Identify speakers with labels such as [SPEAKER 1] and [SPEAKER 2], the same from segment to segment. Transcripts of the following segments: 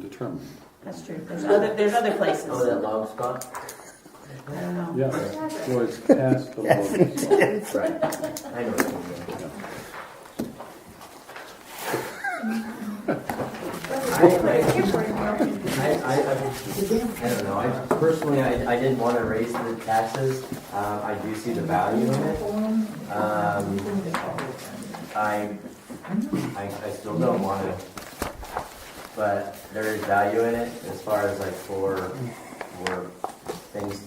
[SPEAKER 1] determined.
[SPEAKER 2] That's true. There's other, there's other places.
[SPEAKER 3] Oh, that log spot?
[SPEAKER 2] I don't know.
[SPEAKER 1] Yeah, so it's past the loading zone.
[SPEAKER 3] Right. I know. what you mean. I, I, I, I don't know, I personally, I, I didn't want to raise the taxes, uh, I do see the value in it. Um, I, I, I still don't want to, but there is value in it as far as like for, for things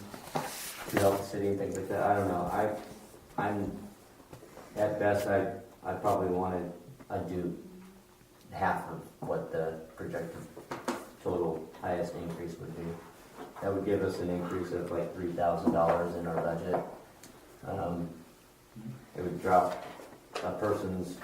[SPEAKER 3] to help the city and things like that, I don't know, I, I'm, at best, I, I probably wanted, i do half of what the projected total highest increase would be. That would give us an increase of like three thousand dollars in our budget. Um, It would drop a person's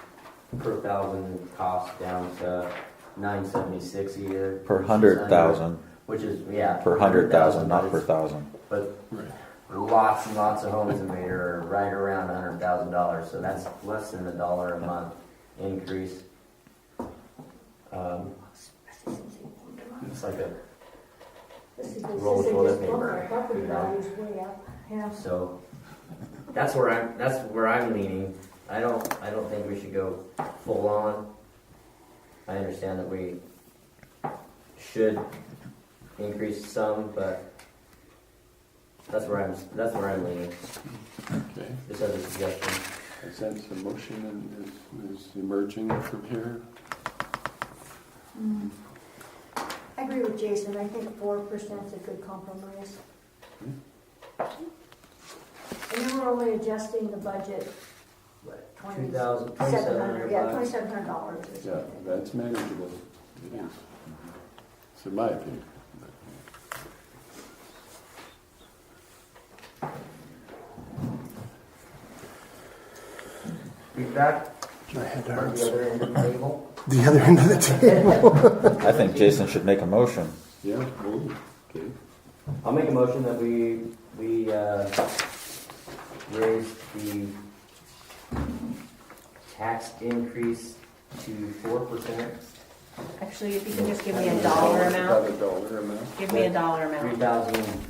[SPEAKER 3] per thousand cost down to nine seventy-six a year.
[SPEAKER 4] Per hundred thousand,
[SPEAKER 3] Which is, yeah.
[SPEAKER 4] per hundred thousand,
[SPEAKER 3] but
[SPEAKER 4] not per
[SPEAKER 3] it's-
[SPEAKER 4] thousand.
[SPEAKER 3] But
[SPEAKER 1] Right.
[SPEAKER 3] lots and lots of homes in Vader are right around a hundred thousand dollars, so that's less than a dollar a month increase. Um, It's like a, Roll toilet paper.
[SPEAKER 5] Property
[SPEAKER 3] You know?
[SPEAKER 5] values way up, yeah.
[SPEAKER 3] so, that's where I'm, that's where I'm leaning. I don't, I don't think we should go full on. I understand that we should increase some, but that's where I'm, that's where I'm leaning,
[SPEAKER 1] Okay,
[SPEAKER 3] just as a suggestion.
[SPEAKER 1] I sense the motion is, is emerging from here.
[SPEAKER 5] Mm. I agree with Jason, I think four percent is a good compromise.
[SPEAKER 1] Hmm.
[SPEAKER 5] And then we're only adjusting the budget
[SPEAKER 3] What,
[SPEAKER 5] twenty,
[SPEAKER 3] 2,000,
[SPEAKER 5] seven hundred, yeah,
[SPEAKER 3] 2,700 bucks?
[SPEAKER 5] twenty-seven hundred dollars or
[SPEAKER 1] Yeah,
[SPEAKER 5] something.
[SPEAKER 1] that's manageable. It is. It's in my opinion.
[SPEAKER 3] Feedback
[SPEAKER 6] My head
[SPEAKER 3] from the
[SPEAKER 6] hurts.
[SPEAKER 3] other end of the table?
[SPEAKER 6] The other end of the table.
[SPEAKER 4] I think Jason should make a motion.
[SPEAKER 1] Yeah, well, okay.
[SPEAKER 3] I'll make a motion that we, we, uh, raise the tax increase to four percent,
[SPEAKER 2] Actually, if you can just give me a dollar amount,
[SPEAKER 1] About a dollar amount.
[SPEAKER 2] give me a dollar
[SPEAKER 3] three
[SPEAKER 2] amount.
[SPEAKER 3] thousand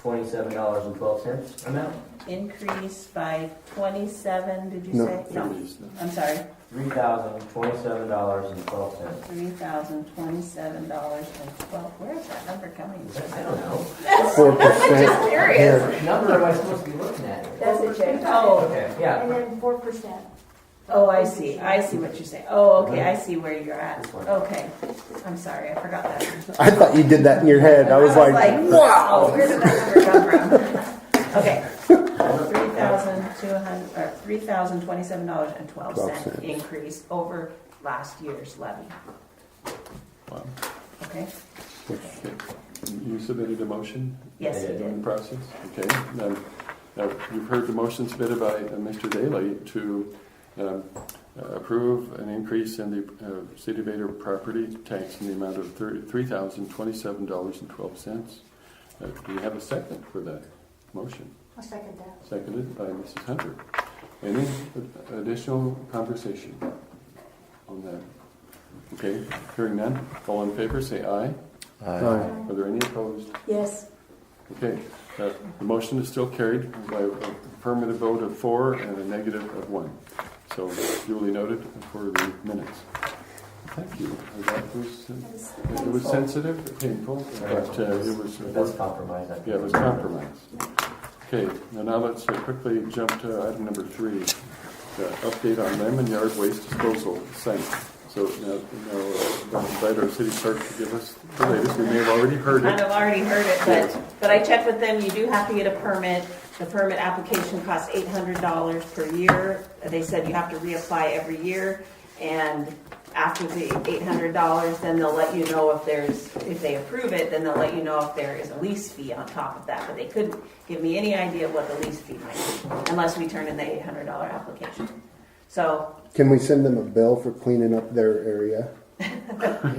[SPEAKER 3] twenty-seven dollars and twelve cents amount?
[SPEAKER 2] Increase by twenty-seven, did you
[SPEAKER 6] No.
[SPEAKER 2] say? No, I'm sorry,
[SPEAKER 3] Three thousand twenty-seven dollars and twelve cents.
[SPEAKER 2] three thousand twenty-seven dollars and twelve, where is that number coming from?
[SPEAKER 3] I don't know.
[SPEAKER 6] Four percent.
[SPEAKER 2] Serious?
[SPEAKER 3] What number am I supposed to be looking at?
[SPEAKER 5] That's it, Jason.
[SPEAKER 2] Oh,
[SPEAKER 3] Okay, yeah,
[SPEAKER 5] And then four percent.
[SPEAKER 2] oh, I see, I see what you say, oh, okay, I see where you're at,
[SPEAKER 3] This one.
[SPEAKER 2] okay, I'm sorry, I forgot that.
[SPEAKER 6] I thought you did that in your head. I was like,
[SPEAKER 2] wow. Where did that number come from? Okay, three thousand two hundred, or three thousand twenty-seven dollars and twelve
[SPEAKER 6] Twelve
[SPEAKER 2] cent
[SPEAKER 6] cents.
[SPEAKER 2] increase over last year's levy,
[SPEAKER 1] Wow.
[SPEAKER 2] okay?
[SPEAKER 1] Okay. You submitted a motion?
[SPEAKER 2] Yes, you
[SPEAKER 3] Yeah.
[SPEAKER 2] did.
[SPEAKER 1] In process, okay. Now, now, you've heard the motion submitted by uh, Mr. Daley to um, uh, approve an increase in the uh, City of Vader property tax in the amount of thir- $3,027.12. Uh, Do we have a second for that motion?
[SPEAKER 5] I'll second that.
[SPEAKER 1] Seconded by Mrs. Hunter. Any additional conversation on that? Okay, hearing none. All in favor, say aye.
[SPEAKER 4] Uh,
[SPEAKER 1] Are there any opposed?
[SPEAKER 5] Yes.
[SPEAKER 1] Okay, uh, the motion is still carried by an affirmative vote of four and a negative of one. So duly noted for the minutes. Thank you. That was, uh, it was sensitive, painful, but uh, it was,
[SPEAKER 3] that's compromise. I think.
[SPEAKER 1] yeah, it was compromised. Okay, now now let's uh, quickly jump to item number three, the update on Lemon Yard Waste Disposal Site. So now, now uh, invite our city clerk to give us the latest. We may have already heard
[SPEAKER 2] I've
[SPEAKER 1] it.
[SPEAKER 2] already heard it, but, but I checked with them, you do have to get a permit. The permit application costs eight hundred dollars per year. They said you have to reapply every year, and after the eight hundred dollars, then they'll let you know if there's, if they approve it, then they'll let you know if there is a lease fee on top of that, but they couldn't give me any idea what the lease fee might be, unless we turn in the eight hundred dollar application. So,
[SPEAKER 6] can we send them a bill for cleaning up their area?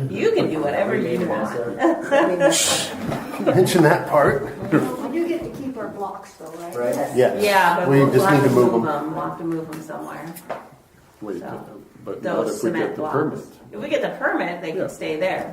[SPEAKER 2] you can do whatever
[SPEAKER 3] We
[SPEAKER 2] you
[SPEAKER 3] made a mess
[SPEAKER 2] want.
[SPEAKER 3] of it.
[SPEAKER 6] Mention that part.
[SPEAKER 5] We do get to keep our blocks though, right?
[SPEAKER 3] Right.
[SPEAKER 6] Yes.
[SPEAKER 2] Yeah, but
[SPEAKER 6] we
[SPEAKER 2] we'll we'll
[SPEAKER 6] just
[SPEAKER 2] have
[SPEAKER 6] need
[SPEAKER 2] to
[SPEAKER 6] to move them.
[SPEAKER 2] move them, we'll have to move them somewhere.
[SPEAKER 1] Wait,
[SPEAKER 2] So,
[SPEAKER 1] but not
[SPEAKER 2] those
[SPEAKER 1] if we get
[SPEAKER 2] cement
[SPEAKER 1] the
[SPEAKER 2] blocks.
[SPEAKER 1] permit.
[SPEAKER 2] If we get the permit, they
[SPEAKER 1] Yeah.
[SPEAKER 2] can stay there.